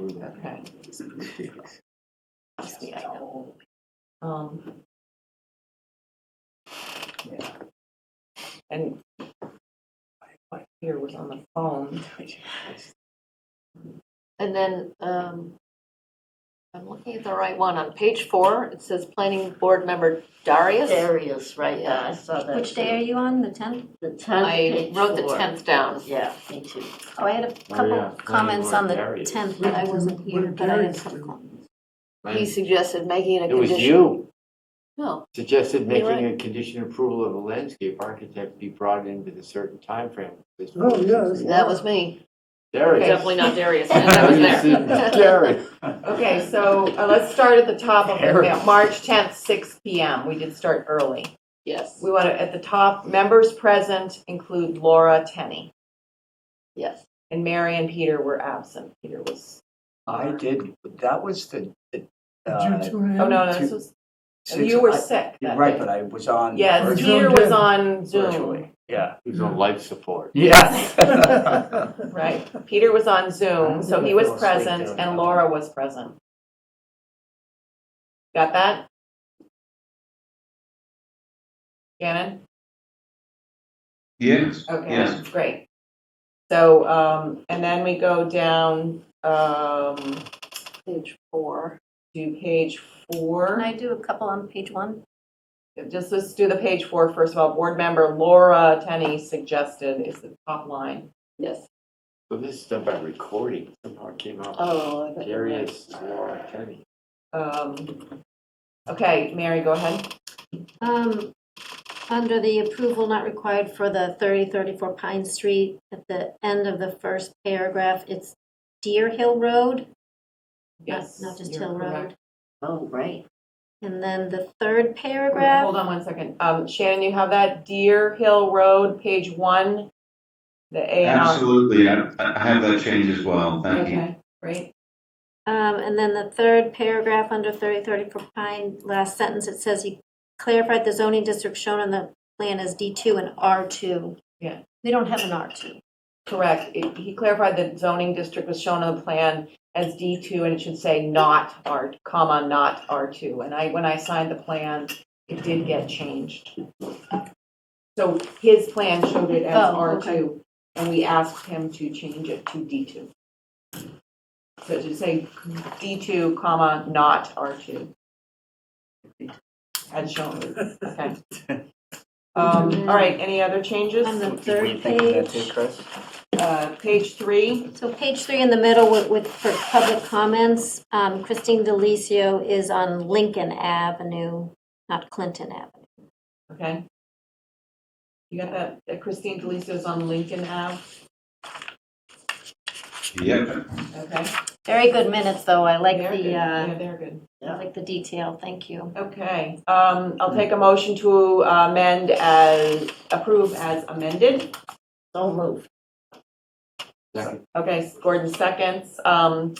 Okay. See, I know. Um. yeah. And what here was on the phone. And then, um, I'm looking at the right one. On page four, it says planning board member Darius. Darius, right, yeah, I saw that. Which day are you on, the 10th? The tenth. I wrote the tenth down. Yeah, me too. Oh, I had a yeah, couple comments on the February is- 10th, I wasn't here, but I had some comments. He suggested making it a It was condition. you No, suggested You know making a condition approval of a landscape architect be brought in with a certain timeframe. This Oh, was- yes. that was me. There it is. Definitely not Darius, and I was Darius there. and Derek. Okay, so uh, let's start at the top of the mail, March tenth, six P M. We did start early. Yes, We want to, at the top, members present include Laura Tenney, yes. and Mary and Peter were absent. Peter was, I did, that was the, the, Did uh, you two have? oh, no, no, this Two- was, six- you were I- sick You're that Right, day. but I was on. Yes, virtually- Peter was on Zoom, virtually, Yeah. He was on life support. Yes. right? Peter was on Zoom, so he was I fell asleep present, doing and that. Laura was present. Got that? Shannon? Yes, Okay, Yes. great. So, um, and then we go down, um, Page four. to page Can four. I do a couple on page one? Just let's do the page four first of all. Board member Laura Tenney suggested is the top line. Yes. So this stuff by recording somehow came out. Oh, I bet. you're right. Darius, Laura, Kenny. Um, okay, Mary, go ahead. Um, Under the approval not required for the 3034 Pine Street, at the end of the first paragraph, it's Deer Hill Road, not Yes. not just you're Hill correct. Road. Oh, right. And then the third Wait, paragraph, Hold on one second. Um, Shannon, you have that Deer Hill Road, page one, the A and R. absolutely. I I have that change as well. Thank you. Okay, great. Um, and then the third paragraph under thirty thirty for Pine, last sentence, it says he clarified the zoning district shown on the plan as D two and R two. Yeah. We don't have an R two. Correct. It- He clarified that zoning district was shown on the plan as D2, and it should say not R, comma, not R2. And I, when I signed the plan, it did get changed. So his plan showed it as Oh, okay. R2, and we asked him to change it to D2. So it should say D2, comma, not R2. As shown, okay. Um, All right, any other changes? On the Did we third think of that too, page, Chris? Uh, Page three. so page three in the middle with, with, for public comments, um, Christine Delicio is on Lincoln Avenue, not Clinton Avenue. Okay. You got that uh, Christine Deliso's on Lincoln Ave, Yep. okay? Very good minutes, though, I like They're good. the, uh, Yeah, they're good. I like the detail, thank you. Okay, um, I'll take a motion to amend as, approve as amended. Don't move. Second. Okay, Gordon seconds, um,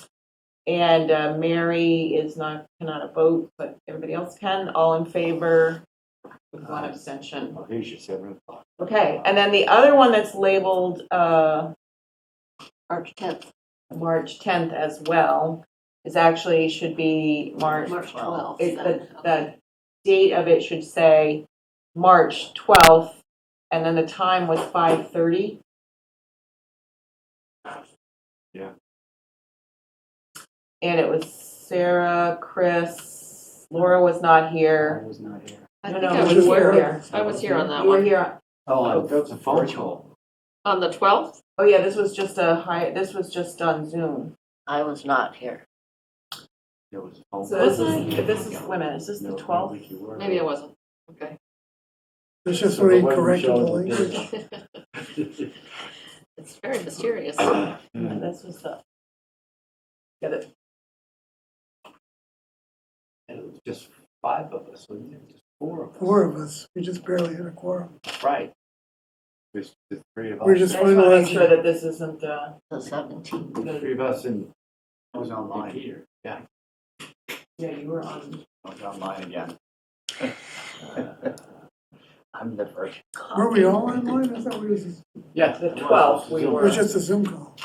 and uh, Mary is not, cannot vote, but everybody else can, all in favor with one abstention. Oh, here's your seven o'clock. Okay, and then the other one that's labeled, uh, March tenth, March 10th as well is actually, should be March, March twelfth. it- the, the date of it should say March 12th, and then the time was 5:30. Yeah. And it was Sarah, Chris, Laura was not I here. was not here. I No, think no, I you was were here. I was here on that You were one. here, Oh, that was a phone call. On the twelfth? oh yeah, this was just a high, this was just on Zoom. I was not here. There was a phone. So call. this is, this is, wait a minute, is this No, the I don't 12th? think you were. Maybe I wasn't. Okay. It's just So the where he way we corrected the showed language. picture. It's very mysterious. Yeah, This was the, yeah, the- And it was just five of us, wasn't it? Just four of us. Four of us, we just barely hit a quorum. Right. There's the three of us. We're I just just want to make finalizing. sure that this isn't, uh, The seventeenth. The three of us and I was and online, Peter. Yeah. yeah, you were on. I was online again. I'm the virgin. Were we all online? I thought we was, it Yeah. The it was. 12th we Zoom. were. was just a Zoom call.